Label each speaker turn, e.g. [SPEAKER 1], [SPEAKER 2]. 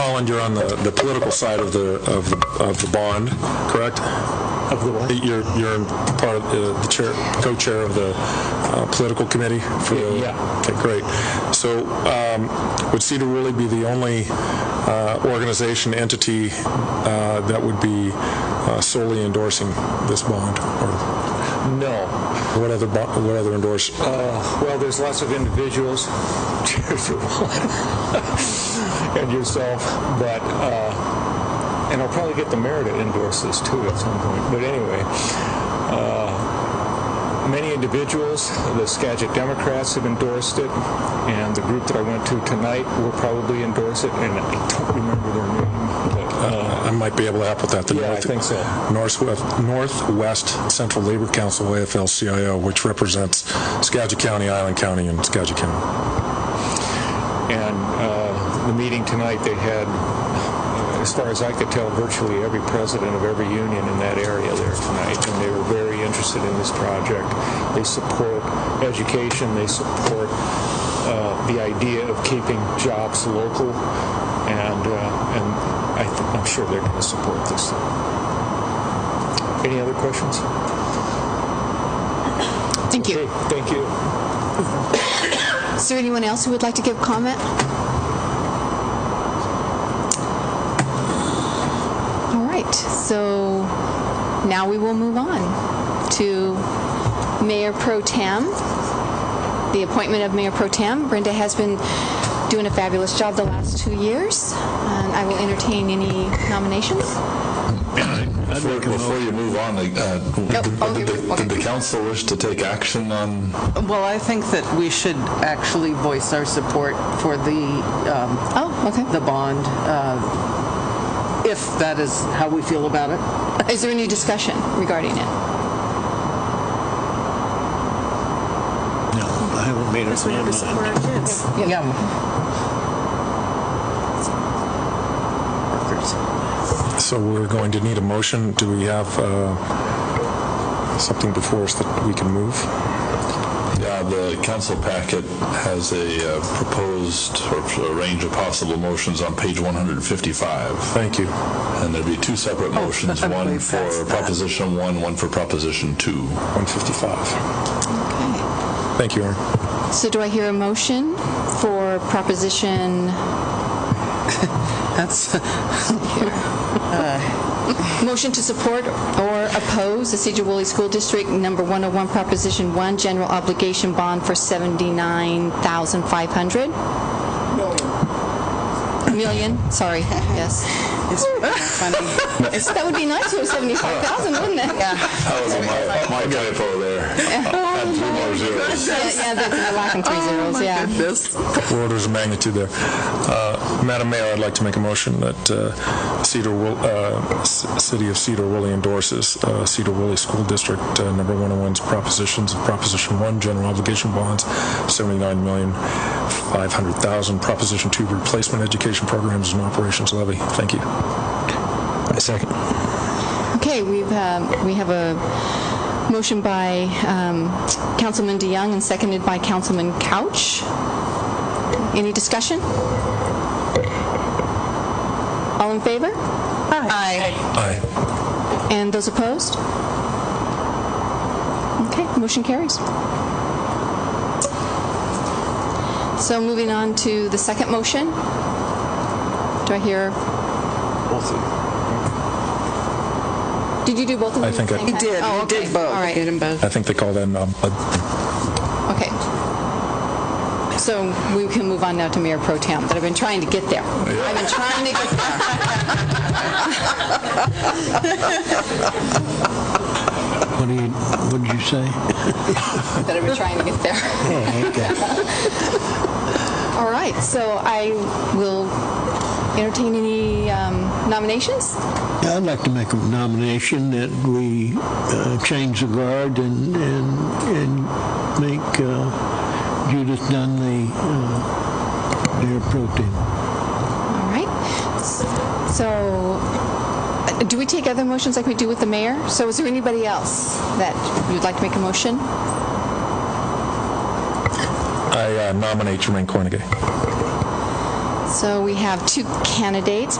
[SPEAKER 1] Alan, you're on the, the political side of the, of the, of the bond, correct? Of the what? You're, you're in part of the- the chair, co-chair of the uh, political committee for the...
[SPEAKER 2] Yeah, yeah.
[SPEAKER 1] Okay, great. So um, would Cedar Woolley be the only uh, organization, entity uh, that would be uh, solely endorsing this bond? Or
[SPEAKER 2] No.
[SPEAKER 1] what other, bo- what other endorse,
[SPEAKER 2] Uh, Well, there's lots of individuals, Cheers for one, and yourself, but, uh, and I'll probably get the mayor to endorse this too at some point, but anyway. uh, Many individuals, the Skagit Democrats have endorsed it, and the group that I went to tonight will probably endorse it, and I don't remember their name. but, uh,
[SPEAKER 1] I might be able to help with that. The
[SPEAKER 2] Yeah, I
[SPEAKER 1] North-
[SPEAKER 2] think so.
[SPEAKER 1] Northwest, Northwest Central Labor Council, AFL-CIO, which represents Skagit County, Island County, and Skagit County.
[SPEAKER 2] And uh, the meeting tonight, they had, as far as I could tell, virtually every president of every union in that area there tonight, and they were very interested in this project. They support education, they support uh, the idea of keeping jobs local, and uh, and I th- I'm sure they're going to support this. Any other questions?
[SPEAKER 3] Thank
[SPEAKER 2] Okay,
[SPEAKER 3] you.
[SPEAKER 2] Thank you.
[SPEAKER 3] Is there anyone else who would like to give comment? All right, so now we will move on to Mayor Pro Tem, the appointment of Mayor Pro Tem. Brenda has been doing a fabulous job the last two years, and I will entertain any nominations.
[SPEAKER 4] Before before you move on, uh,
[SPEAKER 3] oh,
[SPEAKER 4] did
[SPEAKER 3] you're-
[SPEAKER 4] the-
[SPEAKER 3] okay.
[SPEAKER 4] did the council wish to take action on,
[SPEAKER 5] Well, I think that we should actually voice our support for the, um,
[SPEAKER 3] Oh, okay.
[SPEAKER 5] the bond, uh, if that is how we feel about it.
[SPEAKER 3] Is there any discussion regarding it?
[SPEAKER 6] No, I haven't made up
[SPEAKER 7] We have
[SPEAKER 6] my
[SPEAKER 7] to support
[SPEAKER 6] mind.
[SPEAKER 7] our kids.
[SPEAKER 5] Yeah.
[SPEAKER 1] So we're going to need a motion. Do we have uh, something before us that we can move?
[SPEAKER 4] yeah, the council packet has a uh, proposed or a range of possible motions on page 155.
[SPEAKER 1] Thank you.
[SPEAKER 4] And there'd be two separate motions,
[SPEAKER 5] Oh, I
[SPEAKER 4] one
[SPEAKER 5] believe that's
[SPEAKER 4] for
[SPEAKER 5] that.
[SPEAKER 4] Proposition 1, one for Proposition 2.
[SPEAKER 1] 155.
[SPEAKER 3] Okay.
[SPEAKER 1] Thank you, Aaron.
[SPEAKER 3] So do I hear a motion for Proposition
[SPEAKER 5] That's,
[SPEAKER 3] Motion to support or oppose the Cedar Woolley School District Number 101 Proposition 1 General Obligation Bond for $79,500? Million. Million, sorry, yes.
[SPEAKER 5] it's funny.
[SPEAKER 3] That would be nice if it was 75,000, wouldn't it? Yeah.
[SPEAKER 4] That was my my typo there. Had three more zeros.
[SPEAKER 3] Yeah, that's we're lacking three zeros, yeah.
[SPEAKER 5] This,
[SPEAKER 1] orders of magnitude there. Uh, Madam Mayor, I'd like to make a motion that uh, Cedar, Wool- uh, C- City of Cedar Woolley endorses uh, Cedar Woolley School District uh, Number 101's propositions, of Proposition 1, general obligation bonds, $79,500,000, Proposition 2, replacement education programs and operations levy. Thank you. second.
[SPEAKER 3] Okay, we've, um, we have a motion by um, Councilman DeYoung and seconded by Councilman Couch. Any discussion? All in favor? Aye.
[SPEAKER 1] Aye.
[SPEAKER 3] And those opposed? Okay, motion carries. So moving on to the second motion. Do I hear,
[SPEAKER 2] Both of you.
[SPEAKER 3] did you do both of
[SPEAKER 1] I
[SPEAKER 3] them? at the
[SPEAKER 1] think I-
[SPEAKER 3] same
[SPEAKER 1] You
[SPEAKER 3] time?
[SPEAKER 5] did,
[SPEAKER 3] Oh,
[SPEAKER 5] you did
[SPEAKER 3] okay.
[SPEAKER 5] both.
[SPEAKER 3] All right.
[SPEAKER 5] You did 'em both.
[SPEAKER 1] I think they call that um, a
[SPEAKER 3] Okay. So we can move on now to Mayor Pro Tem, that I've been trying to get there. I've been trying to get there.
[SPEAKER 6] What do you, what did you say?
[SPEAKER 3] That I've been trying to get there.
[SPEAKER 6] Oh, okay.
[SPEAKER 3] All right, so I will entertain any um, nominations.
[SPEAKER 6] Yeah, I'd like to make a nomination that we uh, change the guard and, and, and make uh, Judith Dunn the uh, mayor pro tem.
[SPEAKER 3] All right. S- So, uh, do we take other motions like we do with the mayor? So is there anybody else that you'd like to make a motion?
[SPEAKER 1] I uh, nominate Jermaine Cornegay.
[SPEAKER 3] So we have two candidates,